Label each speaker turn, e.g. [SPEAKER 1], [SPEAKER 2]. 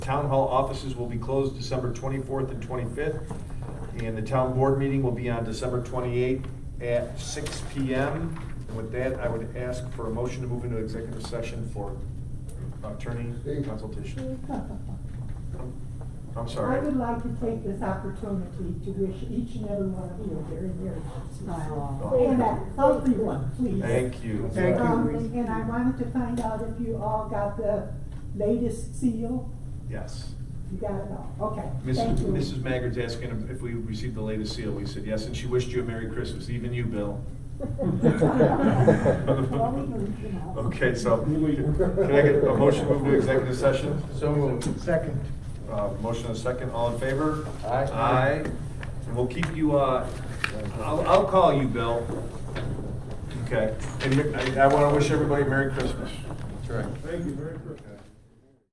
[SPEAKER 1] town hall offices will be closed December 24th and 25th. And the town board meeting will be on December 28th at 6 PM. And with that, I would ask for a motion to move into executive session for attorney consultation. I'm- I'm
[SPEAKER 2] I
[SPEAKER 1] sorry.
[SPEAKER 2] would like to take this opportunity to wish each and every one of you a very merry Christmas.
[SPEAKER 1] Aw.
[SPEAKER 2] And that, everyone, please.
[SPEAKER 1] Thank you.
[SPEAKER 3] Thank you.
[SPEAKER 2] Um, And I wanted to find out if you all got the latest seal?
[SPEAKER 1] Yes.
[SPEAKER 2] You got it all, okay.
[SPEAKER 1] Mrs.
[SPEAKER 2] Thank you.
[SPEAKER 1] Mrs. Maggard's asking if we received the latest seal. We said yes, and she wished you a Merry Christmas, even you, Bill.
[SPEAKER 2] Well, we can, you know.
[SPEAKER 1] Okay, so can I get a motion to move to executive session?
[SPEAKER 3] So moved. Second.
[SPEAKER 1] Uh, Motion and a second, all in favor?
[SPEAKER 3] Aye.
[SPEAKER 1] Aye. And we'll keep you, uh, I'll, I'll call you, Bill. Okay, and I want to wish everybody Merry Christmas.
[SPEAKER 3] That's right.
[SPEAKER 1] Thank you, Merry Christmas.